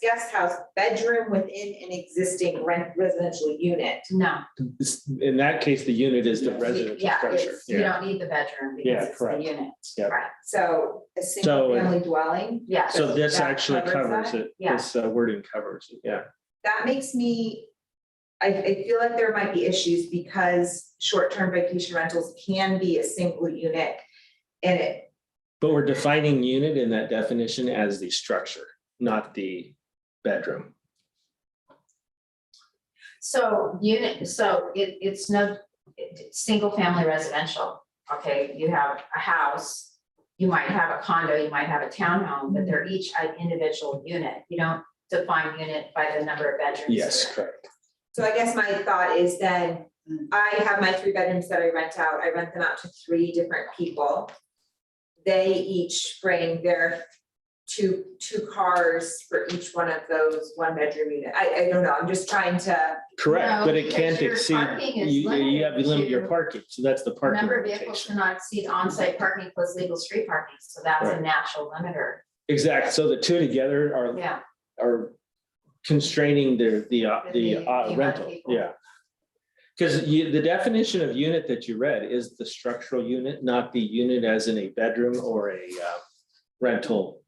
guest house bedroom within an existing rent residential unit. No, This- In that case, the unit is the residential yeah, structure. it's, you don't need the bedroom Yeah, because it's the correct. unit. Yeah. Right, So a single family dwelling, yeah, So this That actually covers covers it. Yeah. This uh, wording covers it, yeah. that makes me, I, I feel like there might be issues because short-term vacation rentals can be a single unit. And it, But we're defining unit in that definition as the structure, not the bedroom. so unit, so it, it's no, it- it's single family residential, okay, you have a house. You might have a condo, you might have a townhome, but they're each an individual unit, you don't define unit by the number of bedrooms. Yes, or- correct. so I guess my thought is then, I have my three bedrooms that I rent out, I rent them out to three different people. They each bring their two, two cars for each one of those one-bedroom unit. I, I don't know, I'm just trying to, Correct, No, but it because can't your exceed, parking is you, you have to limit your limited to parking, so that's the The parking Number of vehicles limitation. cannot exceed on-site parking plus legal street parking, so that's a Right. natural limiter, Exact, so the two together are, yeah. are constraining the, the, uh, the The- the amount uh, of rental, people. yeah. Because you, the definition of unit that you read is the structural unit, not the unit as in a bedroom or a uh, rental.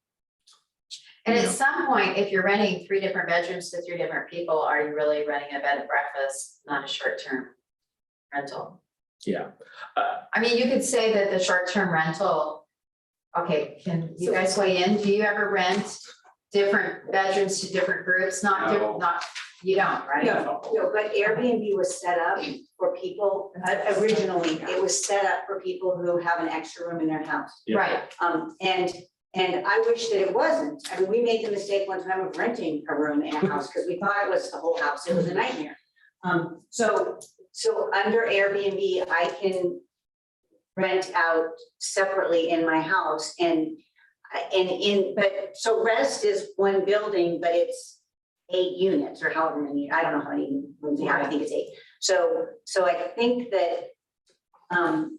And Yeah. at some point, if you're renting three different bedrooms to three different people, are you really renting a bed and breakfast, not a short-term rental? Yeah, Uh, I mean, you could say that the short-term rental, okay, can you guys weigh in? Do you ever rent different bedrooms to different groups? No. Not, diff- not, you don't, right? No. No, but Airbnb was set up for people, uh, originally, it was set up for people who have an extra room in their house. Yeah. Right, Um, and, and I wish that it wasn't. I mean, we made the mistake one time of renting a room in a house because we thought it was the whole house. It was a nightmare. Um, so, so under Airbnb, I can rent out separately in my house and, and in, but, so rest is one building, but it's eight units or however many, I don't know how many rooms they have. I think it's eight. So, so I think that, um,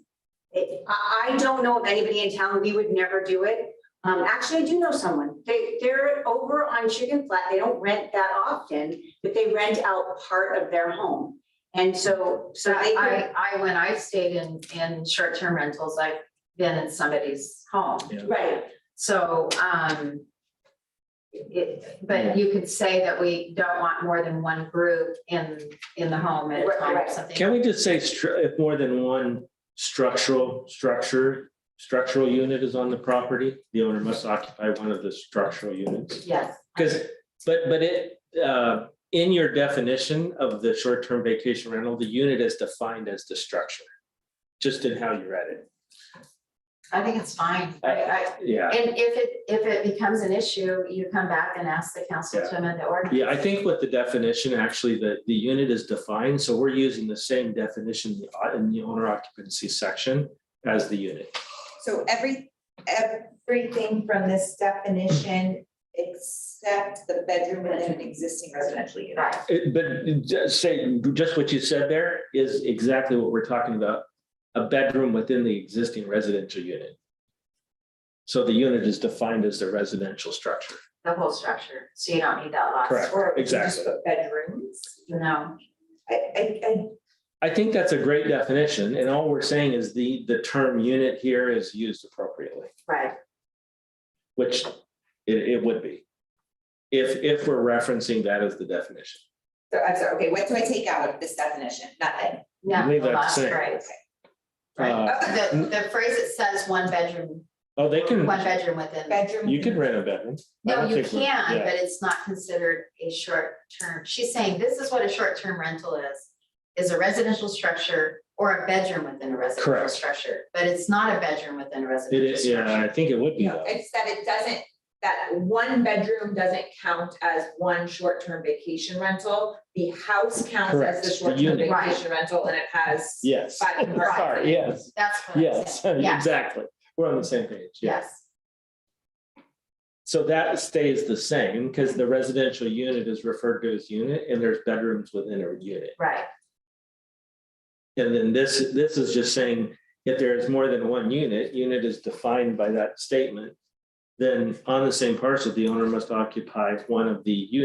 it, I, I don't know of anybody in town, we would never do it. Um, actually, I do know someone, they, they're over on Chicken Flat, they don't rent that often, but they rent out part of their home. And so, so they, could- I, I, when I've stayed in, in short-term rentals, I've been in somebody's home. right, So, um, it, but you could say that we don't want more than one group in, in the home at a Right, time or right. something. can we just say stru- if more than one structural structure, structural unit is on the property, the owner must occupy one of the structural units? Yes. Because, but, but it, uh, in your definition of the short-term vacation rental, the unit is defined as the structure. Just in how you read it. I think it's fine. Uh, I, I, Yeah, and if it, if it becomes an issue, you come back and ask the council to amend the ordinance. yeah, I think with the definition, actually, the, the unit is defined, so we're using the same definition in the- in the owner occupancy section as the unit. so every, everything from this definition except the bedroom within an existing residential unit. Right, It- But just say, just what you said there is exactly what we're talking about, a bedroom within the existing residential unit. So the unit is defined as the residential structure. the whole structure, so you don't need that lot. Correct. Or we can Exactly. just put bedrooms. No, I, I, I, I think that's a great definition, and all we're saying is the, the term unit here is used appropriately, right, which it, it would be. If, if we're referencing that as the definition. so I'm sorry, okay, what do I take out of this definition? Nothing. no, Leave the that the last same. phrase. Uh, Okay. The, the phrase that says one bedroom, Oh, they can, one bedroom within. Bedroom. you can rent a bedroom. I No, don't you think we're- can, yeah. but it's not considered a short term. She's saying this is what a short term rental is. Is a residential structure or a bedroom within a residential Correct. structure, but it's not a bedroom within a It residential is, yeah, I structure. think it would be No, though. it's that it doesn't, that one bedroom doesn't count as one short-term vacation rental. The house counts as Correct, the the short-term unit. Right. vacation rental and it has. Yes. Five and five. Sorry, yes, That's what I'm yes, saying. Yeah, exactly. We're on the same page, yeah. yes, So that stays the same, because the residential unit is referred to as unit, and there's bedrooms within a unit. right, And then this, this is just saying, if there is more than one unit, unit is defined by that statement. then on the same parcel, the owner must occupy one of the units.